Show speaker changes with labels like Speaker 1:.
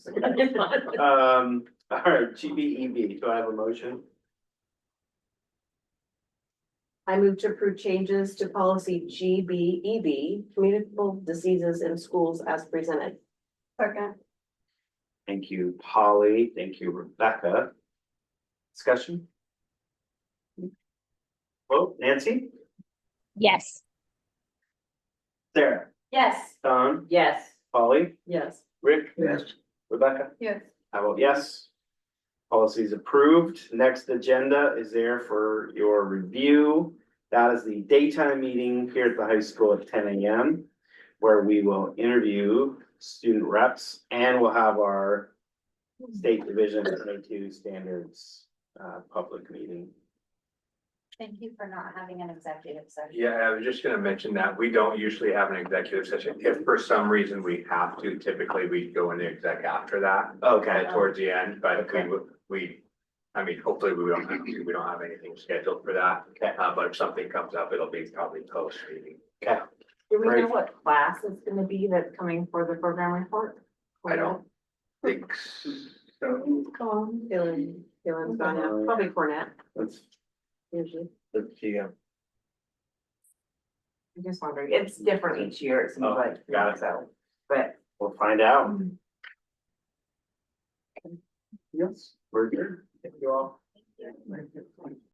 Speaker 1: Um, all right, GBEB, do I have a motion?
Speaker 2: I move to approve changes to policy G B E B, communicable diseases in schools as presented.
Speaker 3: Second.
Speaker 1: Thank you, Polly. Thank you, Rebecca. Discussion? Vote, Nancy?
Speaker 4: yes,
Speaker 1: Sarah?
Speaker 3: Yes.
Speaker 1: Don?
Speaker 2: Yes.
Speaker 1: Polly?
Speaker 2: Yes.
Speaker 1: Rick? Yes. Rebecca?
Speaker 3: Yes.
Speaker 1: I vote yes. Policy is approved. Next agenda is there for your review. That is the daytime meeting here at the high school at ten AM, where we will interview student reps and we'll have our state division twenty-two standards, uh, public meeting.
Speaker 3: Thank you for not having an executive session.
Speaker 5: Yeah, I was just gonna mention that. We don't usually have an executive session. If for some reason we have to, typically we go into exec after that,
Speaker 1: Okay,
Speaker 5: uh, towards the end, but we
Speaker 1: Okay.
Speaker 5: would, we. I mean, hopefully we don't, have to. we don't have anything scheduled for that,
Speaker 1: okay,
Speaker 5: uh, but if something comes up, it'll be probably post meeting.
Speaker 2: Do we know
Speaker 1: Great.
Speaker 2: what class it's gonna be that's coming for the program report?
Speaker 5: I don't think so.
Speaker 2: Gone. Um, Dylan, Dylan's gone
Speaker 1: Uh,
Speaker 2: now, probably Cornet,
Speaker 1: that's,
Speaker 2: usually.
Speaker 5: Let's see, um,
Speaker 2: I'm just wondering, it's different each year, it seems
Speaker 1: Oh,
Speaker 2: like,
Speaker 1: got it.
Speaker 2: so, but.
Speaker 1: we'll find out. Yes, we're here. Thank you all.